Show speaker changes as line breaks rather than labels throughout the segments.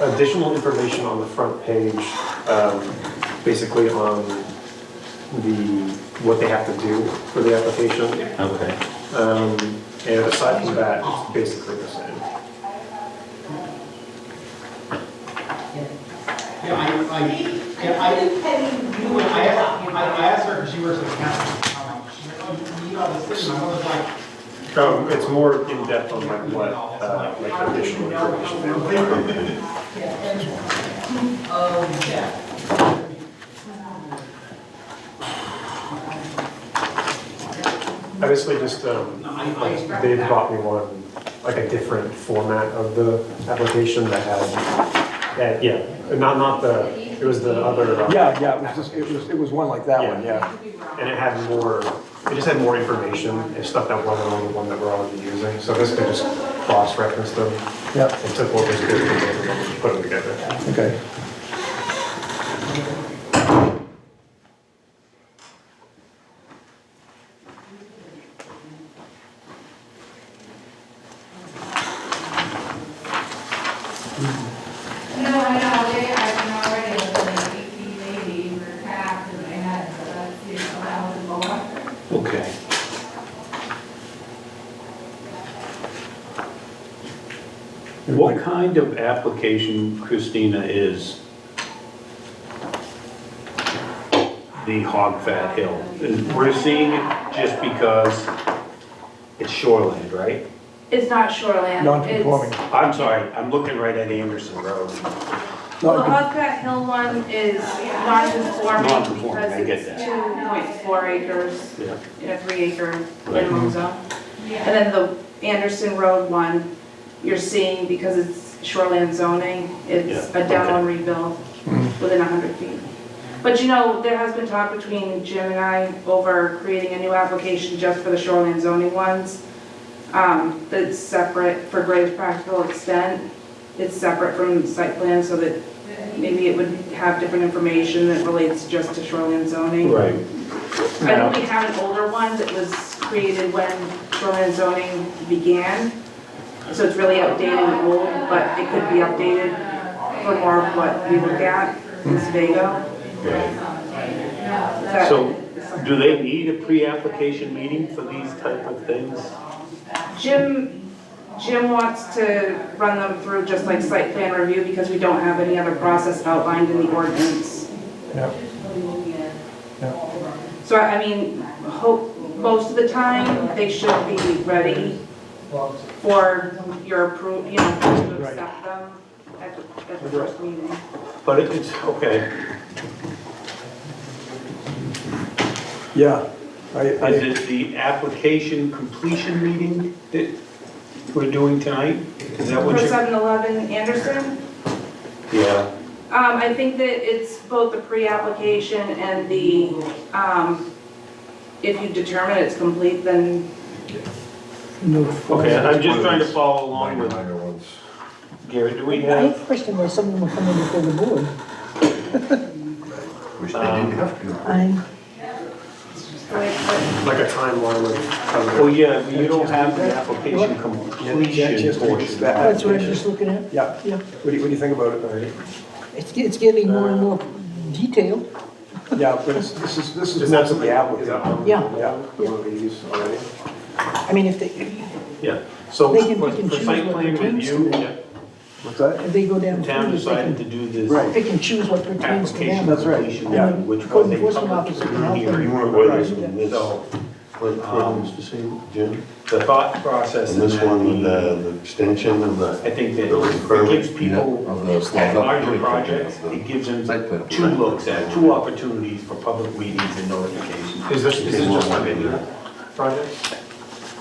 additional information on the front page, um, basically on the, what they have to do for the application.
Okay.
Um, And aside from that, it's basically the same.
Yeah, I, I, yeah, I, you know, I asked, I I asked her, because she works at the county, I'm like, she, oh, you need all this, and I was like,
Um, It's more in depth on like what, uh, like additional information they require.
oh, yeah.
I basically just, um,
No, I, I expect
They
that.
bought me one, like a different format of the application that had, that, yeah, not, not the, it was the other. uh,
Yeah, yeah, it was, just- it was, it was one like that one, yeah.
And it had more, it just had more information and stuff that wasn't on the one that we're already using. So this could just cross-reference them
Yep,
and took what was good from the other one and put them together.
okay.
No, I know, they, I've been already like eighteen eighty for tax in my head, so that's, you know, that was
Okay. What kind of application, Christina, is the Hog Fat Hill? Is- We're seeing it just because it's shoreland, right?
It's not shoreland.
Non-conforming.
I'm sorry, I'm looking right at Anderson Road.
The
No,
Hogback Hill one is non-conforming
Non-conforming, I
because
get
it's two point four acres
Yeah.
in a three acre
Right.
minimum zone. And then the Anderson Road one, you're seeing because it's shoreland zoning, it's
Yeah,
a down
okay.
and rebuild within hundred feet. But you know, there has been talk between Jim and I over creating a new application just for the shoreland zoning ones. Um, that's separate for greatest practical extent. It's separate from site plan so that maybe it would have different information that relates just to shoreland zoning.
Right.
I know we have an older one that was created when shoreline zoning began, so it's really outdated and old, but it could be updated for more of what we look at in Sebago. That-
So, do they need a pre-application meeting for these type of things?
Jim, Jim wants to run them through just like site plan review because we don't have any other process outlined in the ordinance.
Yeah. Yeah.
So I I mean, hope, most of the time, they should be ready for your approval, you know, to accept them at the, at the first meeting.
But it- it's, okay.
yeah, I, I,
Is it the application completion meeting that we're doing tonight? Is that
For
what you're?
7-Eleven Anderson,
Yeah,
um, I think that it's both the pre-application and the, um, if you determine it's complete, then
okay, I'm just trying to follow along
Minor,
with,
minor ones.
Gary, do we
I have
have?
a question why someone will come in before the board.
Wish they didn't have to.
I'm,
like, but
Like a timeline of.
Oh, yeah, you don't have the application
Yeah,
completion
just-
portion.
that-
that's what I'm just looking at.
yeah,
Yeah,
what do you, what do you think about it, Mary?
it's, ge- it's getting more and more detailed.
Yeah, but it's, this is, this
Is
is
that
most of
something?
the
is that
applicant.
on-
Yeah.
Yeah, um, the one we use already.
I mean, if they, if
Yeah, so
They can
for
pick and
for
choose
site
what
plan
pertains to
review,
them.
What's that?
they go down.
the town
first, they can
decided to do this
Right.
Pick and choose what pertains to
application
them.
That's right,
completion,
yeah.
meeting, which
Code
was a
enforcement
public
officer can help them.
hearing.
Whether it's in this,
So,
what, what was the same, Jim?
the thought process.
And this
in Um, that
one, with
meeting-
the, the extension of
I
the,
think that
Building
it
permit,
gives
yeah, of
people
the- of
at
the-
larger
building permit,
projects,
of the
it gives them
site plan.
two looks at, two opportunities for public meetings and notifications.
Is this, is this just
One
one
maybe.
video project?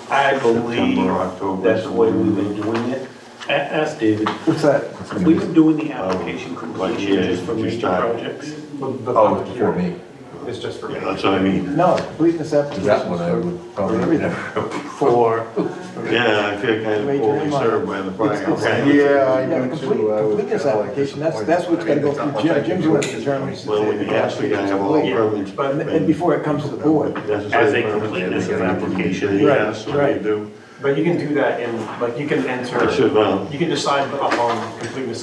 I believe
September, October.
that's the way we've been doing it. A- Ask David,
What's that?
we've been doing the application completion
yeah,
just for
just
major
not-
projects.
Oh, it's before me.
It's just for me.
yeah, that's what I mean.
No, completeness application.
That one I would probably
everything.
never.
For,
Yeah, I feel kind of
Major
poorly
minor.
served by the
It's- it's-
fact.
Yeah,
Yeah, the complete, completeness application, that's, that's what's gotta go through Jim, Jim's gonna determine. if
Well,
the
we actually gotta have all
application's
permits.
complete. And, and before it comes to the board.
necessary
As a
permits,
completeness of
everything.
application.
Yes, what
Right,
they
right.
do.
But you can do that in, like, you can enter,
I should, well.
you can decide upon completeness